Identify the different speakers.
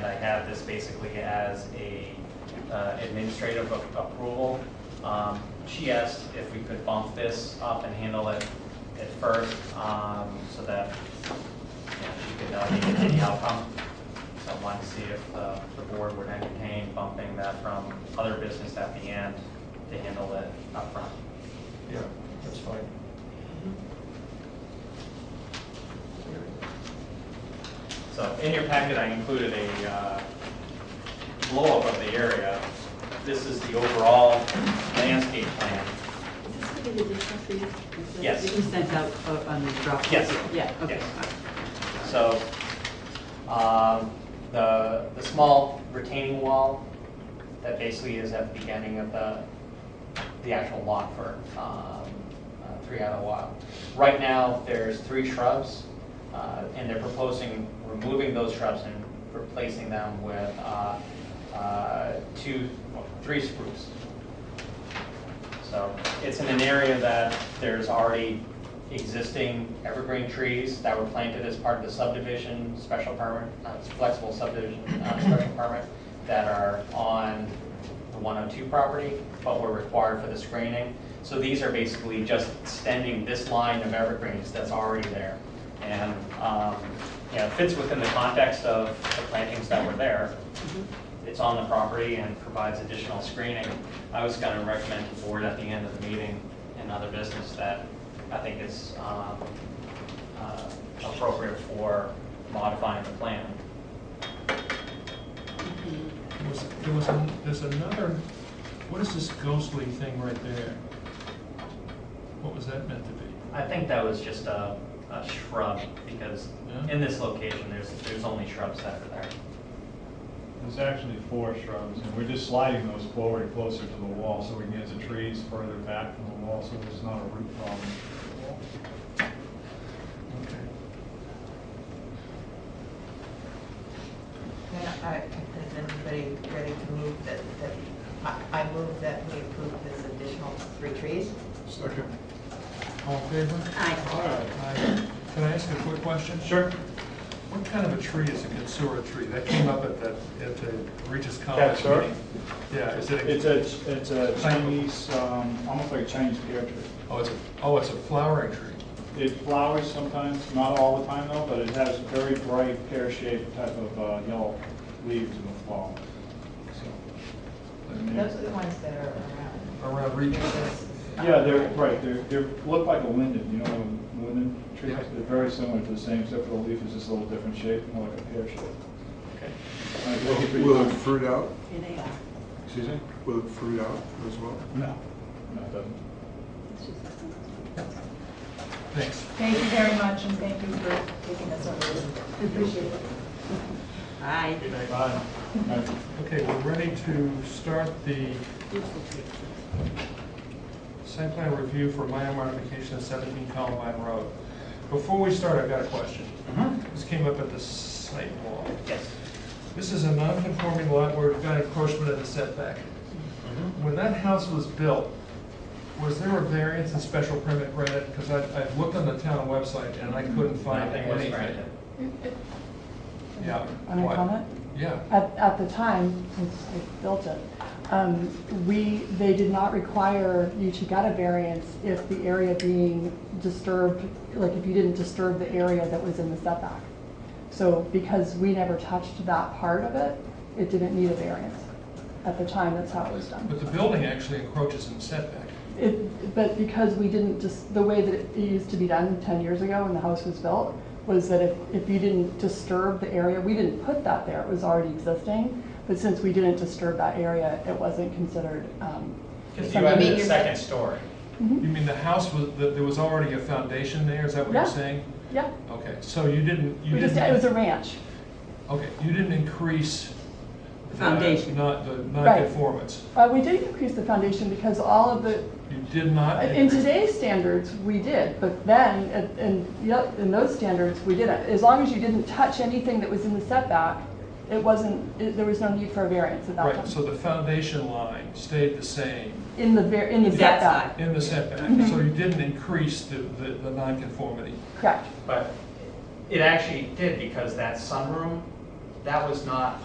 Speaker 1: have this basically as a uh, administrative a- approval. Um, She asked if we could bump this up and handle it at first, um, so that you know, she could delegate any outcome. So I wanted to see if uh, the board would entertain bumping that from other business at the end to handle it upfront.
Speaker 2: Yeah, that's fine.
Speaker 1: So in your packet, I included a uh, blow-up of the area. This is the overall landscape plan.
Speaker 3: Is this going to be additional for you? Is that-
Speaker 1: Yes.
Speaker 3: That you sent out uh, on the drop?
Speaker 1: Yes.
Speaker 3: Yeah, okay.
Speaker 1: Yes.
Speaker 3: all right.
Speaker 1: So um, the, the small retaining wall that basically is at the beginning of the, the actual lot for um, uh, Three Isle Wild. Right now, there's three shrubs, uh, and they're proposing removing those shrubs and replacing them with uh, uh, two, well, three spruce. So it's in an area that there's already existing evergreen trees that were planted as part of the subdivision, special permit, uh, flexible subdivision, uh, special permit, that are on the 102 property, but were required for the screening. So these are basically just extending this line of evergreens that's already there. And, um, yeah, it fits within the context of the plantings that were there it's on the property and provides additional screening. I was going to recommend the board at the end of the meeting and other business that I think is um, uh, appropriate for modifying the plan.
Speaker 2: There was, there was, an- there's another, what is this ghostly thing right there? What was that meant to be?
Speaker 1: I think that was just a a shrub because
Speaker 2: Yeah.
Speaker 1: in this location, there's, there's only shrubs that are there.
Speaker 4: There's actually four shrubs, and we're just sliding those forward closer to the wall, so we can get the trees further back from the wall, so there's not a root problem.
Speaker 2: Okay.
Speaker 5: Yeah, I, is anybody ready to move that, that, I, I move that we approve this additional three trees?
Speaker 2: Second. All in favor?
Speaker 3: Aye.
Speaker 2: Aye. Can I ask a quick question? Sure. What kind of a tree is a consura tree? That came up at the, at the Regis College
Speaker 4: Katsura?
Speaker 2: meeting. Yeah, is it,
Speaker 4: It's
Speaker 2: a-
Speaker 4: a, it's a Chinese, um, almost like a Chinese pear tree.
Speaker 2: oh, it's, a oh, it's a flowering tree.
Speaker 4: It flowers sometimes, not all the time though, but it has very bright pear-shaped type of uh, yellow leaves in the fall. Mm-hmm.
Speaker 5: Those are the ones that are around.
Speaker 2: Around Regis.
Speaker 4: Yeah, they're, right, they're, they're, look like a linden, you know, a linden trees,
Speaker 2: Yeah.
Speaker 4: they're very similar to the same, except for the leaf is just a little different shape, more like a pear shape.
Speaker 2: Okay.
Speaker 4: Like, look at-
Speaker 6: Will it fruit out?
Speaker 3: Here they are.
Speaker 4: Excuse me?
Speaker 6: Will it fruit out as well?
Speaker 4: No, no, it doesn't.
Speaker 3: It's just-
Speaker 2: Thanks.
Speaker 7: Thank you very much, and thank you for taking us over this. Appreciate it.
Speaker 3: Aye.
Speaker 4: Bye. Bye.
Speaker 2: Okay, we're ready to start the
Speaker 3: Beautiful tree.
Speaker 2: Site plan review for minor modification of 17 Columbine Road. Before we start, I've got a question. This came up at the site walk.
Speaker 1: Mm-hmm. Yes.
Speaker 2: This is a non-conforming lot where we've got encroachment of the setback.
Speaker 1: Mm-hmm.
Speaker 2: When that house was built, was there a variance and special permit granted? Because I, I've looked on the town website and I couldn't find
Speaker 1: Nothing Mm-hmm. was
Speaker 2: anything.
Speaker 1: granted.
Speaker 2: Yeah.
Speaker 8: Can I
Speaker 2: Why?
Speaker 8: comment?
Speaker 2: Yeah.
Speaker 8: At, at the time, since they built it, um, we, they did not require you to get a variance if the area being disturbed, like if you didn't disturb the area that was in the setback. So because we never touched that part of it, it didn't need a variance. At the time, that's how it was done.
Speaker 2: But the building actually encroaches in the setback.
Speaker 8: It, but because we didn't just, the way that it used to be done ten years ago when the house was built, was that if, if you didn't disturb the area, we didn't put that there, it was already existing. But since we didn't disturb that area, it wasn't considered, um,
Speaker 1: Because you
Speaker 8: Something
Speaker 1: added
Speaker 8: in
Speaker 1: a
Speaker 8: your-
Speaker 1: second story.
Speaker 2: You mean the house was, that there was already a foundation there, is that what you're
Speaker 8: Yeah.
Speaker 2: saying?
Speaker 8: yeah.
Speaker 2: Okay, so you didn't, you
Speaker 8: We just,
Speaker 2: didn't.
Speaker 8: it was a ranch,
Speaker 2: Okay, you didn't increase. the-
Speaker 3: Foundation.
Speaker 2: Not, the
Speaker 8: Right.
Speaker 2: non-conformance.
Speaker 8: uh, we did increase the foundation because all of the,
Speaker 2: You did not.
Speaker 8: in
Speaker 2: increase-
Speaker 8: today's standards, we did, but then, and- and, yep, in those standards, we didn't. As long as you didn't touch anything that was in the setback, it wasn't, it- there was no need for a variance at that time.
Speaker 2: Right, so the foundation line stayed the same
Speaker 8: In the, ver- in the
Speaker 3: That
Speaker 8: setback,
Speaker 2: in the setback,
Speaker 8: Mm-hmm.
Speaker 2: so you didn't increase the, the, the non-conformity.
Speaker 8: correct.
Speaker 1: But it actually did because that sunroom, that was not